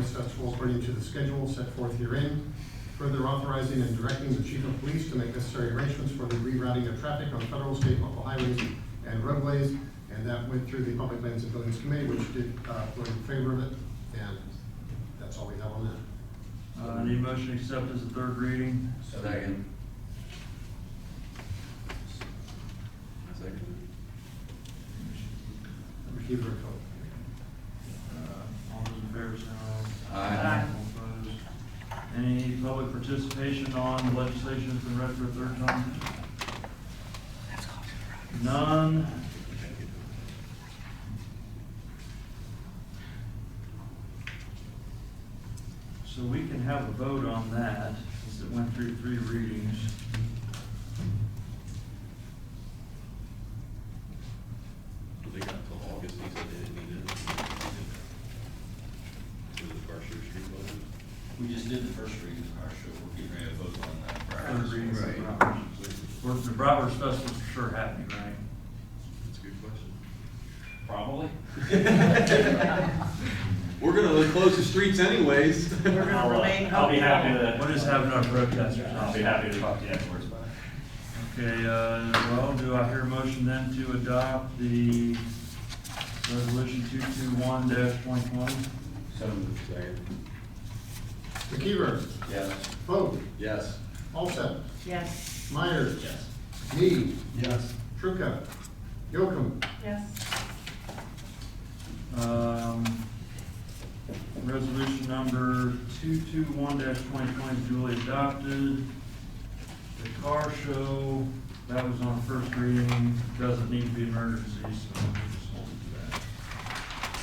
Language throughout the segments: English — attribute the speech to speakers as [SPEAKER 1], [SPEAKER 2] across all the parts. [SPEAKER 1] salary schedule according to the schedule set forth herein. Further authorizing and directing the chief of police to make necessary arrangements for the rerouting of traffic on federal, state, local highways and roadways. And that went through the Public Lands and Buildings Committee, which did, uh, vote in favor of it. And that's all we have on that.
[SPEAKER 2] Uh, need motion to accept as a third reading?
[SPEAKER 3] Second. Second.
[SPEAKER 1] Receive and vote.
[SPEAKER 2] Uh, All those in favor say aye.
[SPEAKER 3] Aye.
[SPEAKER 2] All opposed? Any public participation on legislation that's been read for a third time? None. So we can have a vote on that, since it went through three readings.
[SPEAKER 4] They got till August, he said they didn't need it. To the first year street voters.
[SPEAKER 5] We just did the first reading of our show, we're getting ready to vote on that.
[SPEAKER 2] Third readings of
[SPEAKER 3] Right.
[SPEAKER 2] Robert's. Well, The Broward Festival's for sure happening, right?
[SPEAKER 4] That's a good question.
[SPEAKER 5] Probably.
[SPEAKER 3] We're gonna close the streets anyways.
[SPEAKER 6] We're gonna remain.
[SPEAKER 7] I'll be happy
[SPEAKER 6] hopeful.
[SPEAKER 7] to,
[SPEAKER 2] What is having our protesters on?
[SPEAKER 7] I'll be happy to talk to you afterwards, but.
[SPEAKER 2] Okay, uh, well, do I hear a motion then to adopt the resolution two-two-one dash point one?
[SPEAKER 3] So Second.
[SPEAKER 1] McKeever,
[SPEAKER 3] Yes.
[SPEAKER 1] vote.
[SPEAKER 3] Yes.
[SPEAKER 1] Alsep,
[SPEAKER 6] Yes,
[SPEAKER 1] Myers,
[SPEAKER 5] Yes.
[SPEAKER 1] Mead,
[SPEAKER 3] Yes.
[SPEAKER 1] Trucca, Yocum,
[SPEAKER 6] yes,
[SPEAKER 2] Um, resolution number two-two-one dash twenty twenty duly adopted. The car show, that was on first reading, doesn't need to be an emergency, so we just hold it to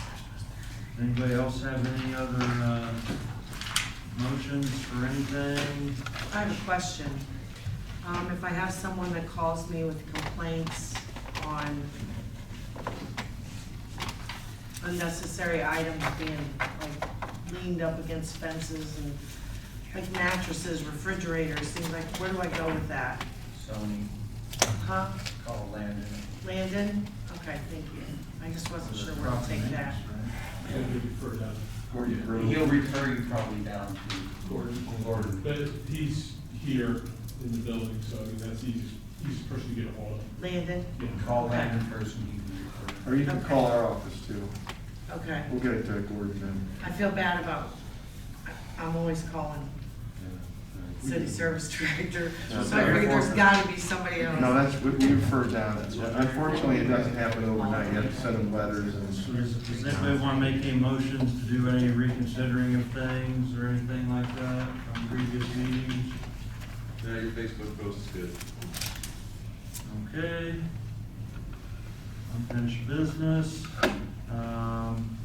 [SPEAKER 2] that. Anybody else have any other, uh, motions for anything?
[SPEAKER 6] I have a question. Um, if I have someone that calls me with complaints on unnecessary items being like leaned up against fences and like mattresses, refrigerators, things like, where do I go with that?
[SPEAKER 3] Sony,
[SPEAKER 6] Huh?
[SPEAKER 3] call Landon.
[SPEAKER 6] Landon? Okay, thank you. I just wasn't sure where to take that.
[SPEAKER 3] He'll refer you probably down to Gordon. Gordon.
[SPEAKER 8] But he's here in the building, so I mean, that's the easiest, easiest person to get ahold of.
[SPEAKER 6] Landon?
[SPEAKER 3] Call Landon first and he can refer.
[SPEAKER 9] Or you can call our office too.
[SPEAKER 6] Okay.
[SPEAKER 9] We'll get it to Gordon then.
[SPEAKER 6] I feel bad about, I'm always calling city service director, so I figured there's gotta be somebody else.
[SPEAKER 9] No, that's, we we refer down. Unfortunately, it doesn't happen overnight. You have to send them letters
[SPEAKER 2] So
[SPEAKER 9] and.
[SPEAKER 2] Does does anybody want to make any motions to do any reconsidering of things or anything like that from previous meetings?
[SPEAKER 4] Yeah, your Facebook post is good.
[SPEAKER 2] Okay. Unfinished business. Um,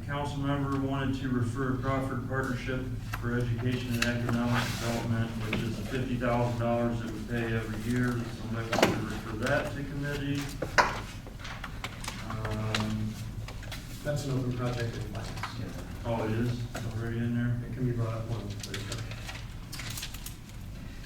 [SPEAKER 2] The council member wanted to refer Crawford Partnership for Education and Economic Development, which is the fifty thousand dollars that we pay every year. Does Somebody want to refer that to committee. Um,
[SPEAKER 1] that's an open project in Lance.
[SPEAKER 2] Oh, it is already in there?
[SPEAKER 1] It can be brought up one, please.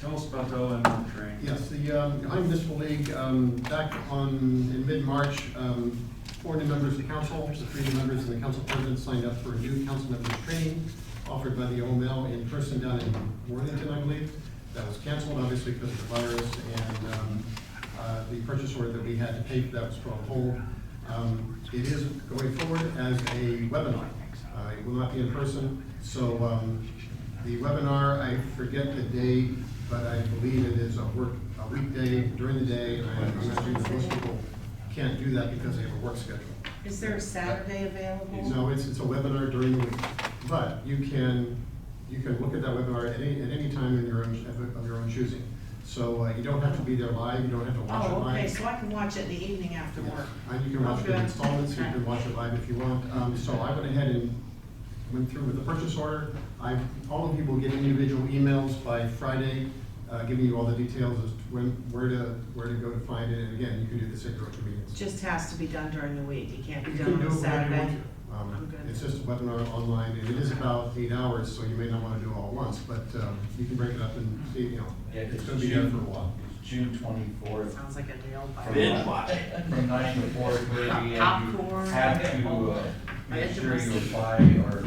[SPEAKER 2] Tell us about the OMO train.
[SPEAKER 1] Yes, the um, Ohio Municipal League, um, back on, in mid-March, um, four new members of council, the three new members and the council president signed up for a new council members training offered by the OML in person down in Worthington, I believe. That was canceled, obviously, because of the virus, and um, uh, the purchase order that we had to pay for that was put on hold. Um, It is going forward as a webinar. Uh, It will not be in person, so um, the webinar, I forget the date, but I believe it is a work, a weekday during the day. and I imagine that most people can't do that because they have a work schedule.
[SPEAKER 6] Is there a Saturday available?
[SPEAKER 1] No, it's, it's a webinar during the week, but you can, you can look at that webinar at any, at any time in your own, of your own choosing. So uh, you don't have to be there live, you don't have to watch it
[SPEAKER 6] Oh,
[SPEAKER 1] live.
[SPEAKER 6] okay, so I can watch it in the evening after work.
[SPEAKER 1] And you can watch it in installments, you can watch it live if you want. Um, so I went ahead and went through with the purchase order. I, all of you will get individual emails by Friday, uh, giving you all the details as to when, where to, where to go to find it. And again, you can do this at your own convenience.
[SPEAKER 6] Just has to be done during the week, it can't be
[SPEAKER 1] You
[SPEAKER 6] done
[SPEAKER 1] can do it
[SPEAKER 6] on a
[SPEAKER 1] whenever you want
[SPEAKER 6] Saturday.
[SPEAKER 1] to.
[SPEAKER 6] I'm
[SPEAKER 1] Um,
[SPEAKER 6] good.
[SPEAKER 1] it's just a webinar online, and it is about eight hours, so you may not wanna do it all at once, but, um, you can break it up and see, you know,
[SPEAKER 3] Yeah,
[SPEAKER 1] it's
[SPEAKER 3] it's
[SPEAKER 1] gonna be done for a
[SPEAKER 3] June.
[SPEAKER 1] while.
[SPEAKER 3] June twenty-fourth.
[SPEAKER 6] Sounds like a nail biter.
[SPEAKER 3] From nine to four thirty, and you
[SPEAKER 6] Popcorn.
[SPEAKER 3] have to, uh,
[SPEAKER 6] I
[SPEAKER 2] Make
[SPEAKER 6] had to
[SPEAKER 2] sure you
[SPEAKER 6] receive.
[SPEAKER 2] apply or